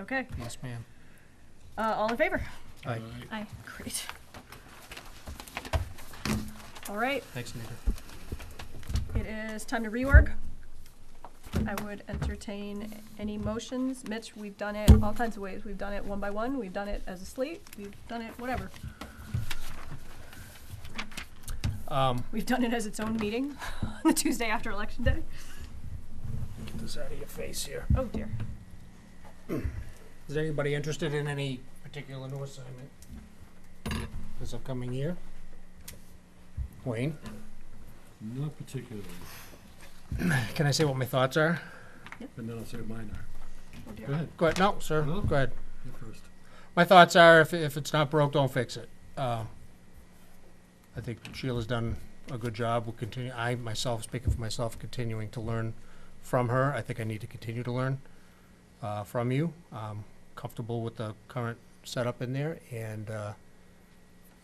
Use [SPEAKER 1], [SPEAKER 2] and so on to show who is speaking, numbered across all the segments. [SPEAKER 1] Okay,
[SPEAKER 2] Yes, ma'am.
[SPEAKER 1] uh, all in favor?
[SPEAKER 2] Aye.
[SPEAKER 1] Aye. Great. All right,
[SPEAKER 2] Thanks, Anita.
[SPEAKER 1] it is time to rework. I would entertain any motions. Mitch, we've done it all kinds of ways. We've done it one by one, we've done it as a slate, we've done it whatever.
[SPEAKER 2] Um,
[SPEAKER 1] We've done it as its own meeting on the Tuesday after election day.
[SPEAKER 2] get this out of your face here.
[SPEAKER 1] Oh dear.
[SPEAKER 2] Is anybody interested in any particular new assignment this upcoming year? Wayne?
[SPEAKER 3] Not particularly,
[SPEAKER 2] Can I say what my thoughts are?
[SPEAKER 3] but then I'll say what mine are.
[SPEAKER 1] Oh
[SPEAKER 3] Go
[SPEAKER 1] dear.
[SPEAKER 3] ahead,
[SPEAKER 2] Go ahead, no, sir,
[SPEAKER 3] No?
[SPEAKER 2] go ahead.
[SPEAKER 3] you first.
[SPEAKER 2] My thoughts are if, if it's not broke, don't fix it. Uh, I think Sheila's done a good job. We'll continue, I myself, speaking for myself, continuing to learn from her. I think I need to continue to learn uh, from you. Um, comfortable with the current setup in there, and uh,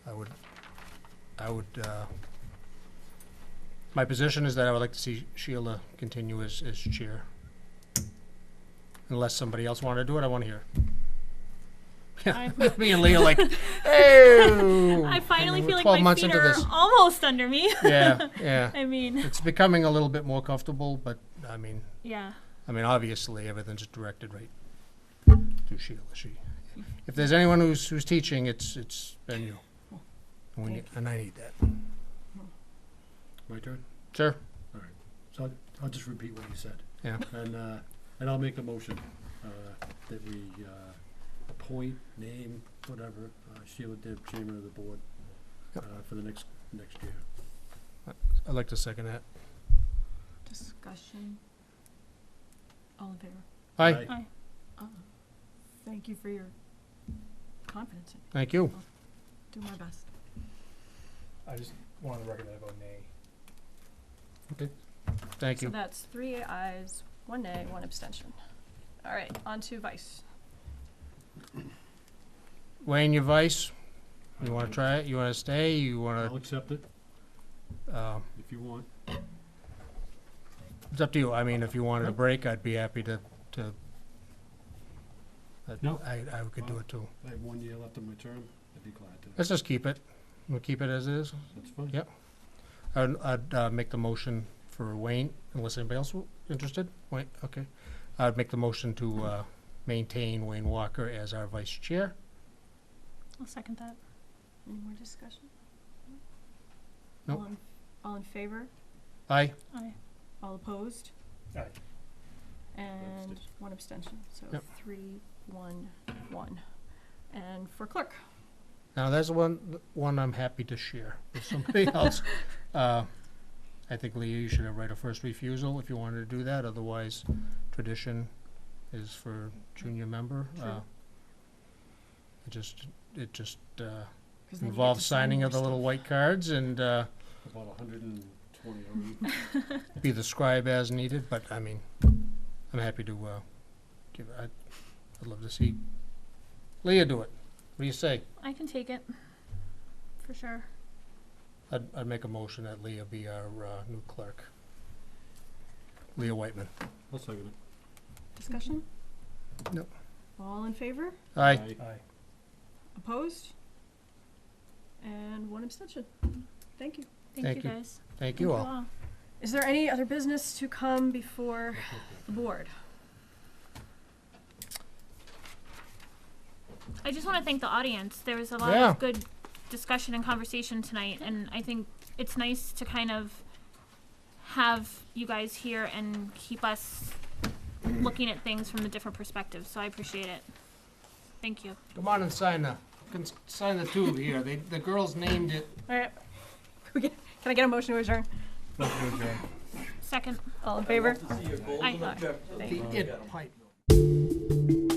[SPEAKER 2] I would, I would. Uh, my position is that I would like to see Sheila continue as, as chair. Unless somebody else wanted to do it, I want to hear.
[SPEAKER 4] I-
[SPEAKER 2] Me and Leah like, hey.
[SPEAKER 4] I finally
[SPEAKER 2] we're
[SPEAKER 4] feel like
[SPEAKER 2] 12
[SPEAKER 4] my
[SPEAKER 2] months
[SPEAKER 4] feet
[SPEAKER 2] into
[SPEAKER 4] are
[SPEAKER 2] this.
[SPEAKER 4] almost under me.
[SPEAKER 2] yeah, yeah.
[SPEAKER 4] I mean,
[SPEAKER 2] It's becoming a little bit more comfortable, but I mean,
[SPEAKER 4] yeah.
[SPEAKER 2] I mean, obviously everything's directed right to Sheila. She, if there's anyone who's who's teaching, it's it's been you. And, we need, and I need that,
[SPEAKER 3] My turn?
[SPEAKER 2] sir.
[SPEAKER 3] So I'll, I'll just repeat what you said.
[SPEAKER 2] Yeah.
[SPEAKER 3] And, uh, and I'll make a motion, uh, that we, uh, appoint, name, whatever, uh, Sheila Dibb, chairman of the board, uh,
[SPEAKER 2] Yep.
[SPEAKER 3] for the next, next year.
[SPEAKER 2] I'd like to second that.
[SPEAKER 4] Discussion. All in favor?
[SPEAKER 2] Hi,
[SPEAKER 3] Aye.
[SPEAKER 1] Uh-uh.
[SPEAKER 4] Thank you for your confidence.
[SPEAKER 2] thank you.
[SPEAKER 4] Do my best.
[SPEAKER 2] I just want to recommend I vote nay. Okay, thank
[SPEAKER 1] So
[SPEAKER 2] you.
[SPEAKER 1] that's three ayes, one nay, one abstention. All right, on to vice.
[SPEAKER 2] Wayne, your vice. You want to try it? You want to stay? You
[SPEAKER 3] I'll
[SPEAKER 2] want
[SPEAKER 3] accept it
[SPEAKER 2] to? Uh,
[SPEAKER 3] if you want.
[SPEAKER 2] It's up to you. I mean, if you wanted a
[SPEAKER 3] Yep.
[SPEAKER 2] break, I'd be happy to, to. I-
[SPEAKER 3] No.
[SPEAKER 2] I, I could do it too.
[SPEAKER 3] I have one year left of my term. I'd be glad to.
[SPEAKER 2] Let's just keep it. We'll keep it as is.
[SPEAKER 3] That's fine.
[SPEAKER 2] Yep. I'd, I'd, uh, make the motion for Wayne, unless anybody else w- interested. Wayne, okay. I'd make the motion to, uh, maintain Wayne Walker as our vice chair.
[SPEAKER 4] I'll second that. Any more discussion?
[SPEAKER 2] Nope.
[SPEAKER 1] All in- All in favor?
[SPEAKER 2] Aye.
[SPEAKER 4] Aye.
[SPEAKER 1] All opposed?
[SPEAKER 2] Aye.
[SPEAKER 1] And
[SPEAKER 3] Abstention.
[SPEAKER 1] one abstention, so
[SPEAKER 2] Yep.
[SPEAKER 1] three, one, one. And for clerk,
[SPEAKER 2] Now, that's one, one I'm happy to share with somebody else. Uh, I think, Leah, you should have right of first refusal if you wanted to do that, otherwise tradition is for junior member.
[SPEAKER 1] True.
[SPEAKER 2] Uh, It just, it just
[SPEAKER 1] 'cause
[SPEAKER 2] uh,
[SPEAKER 1] then you get to
[SPEAKER 2] involves
[SPEAKER 1] sign
[SPEAKER 2] signing
[SPEAKER 1] more
[SPEAKER 2] of the little
[SPEAKER 1] stuff.
[SPEAKER 2] white cards and uh,
[SPEAKER 3] About a hundred and twenty already.
[SPEAKER 2] be the scribe as needed, but I mean, I'm happy to uh, give, I'd I'd love to see Leah do it. What do you say?
[SPEAKER 4] I can take it. For sure.
[SPEAKER 2] I'd, I'd make a motion that Leah be our uh, new clerk. Leah Whitman.
[SPEAKER 3] I'll second
[SPEAKER 1] Discussion?
[SPEAKER 2] No.
[SPEAKER 1] All in favor?
[SPEAKER 2] Aye.
[SPEAKER 3] it. Aye.
[SPEAKER 1] Opposed? And one abstention. Thank you.
[SPEAKER 4] Thank,
[SPEAKER 2] Thank
[SPEAKER 4] you
[SPEAKER 2] you.
[SPEAKER 4] guys.
[SPEAKER 2] Thank you all.
[SPEAKER 1] Is there any other business to come before the board?
[SPEAKER 4] I just want to thank the audience. There was a lot
[SPEAKER 2] Yeah.
[SPEAKER 4] of good discussion and conversation tonight, and I think it's nice to kind of have you guys here and keep us looking at things from a different perspective. So I appreciate it. Thank you.
[SPEAKER 2] Come on and sign the, can s- sign the tube here. They, the girls named it.
[SPEAKER 1] All right. We get- Can I get a motion to adjourn?
[SPEAKER 4] Second.
[SPEAKER 1] All in favor?
[SPEAKER 4] I.
[SPEAKER 2] It pipe.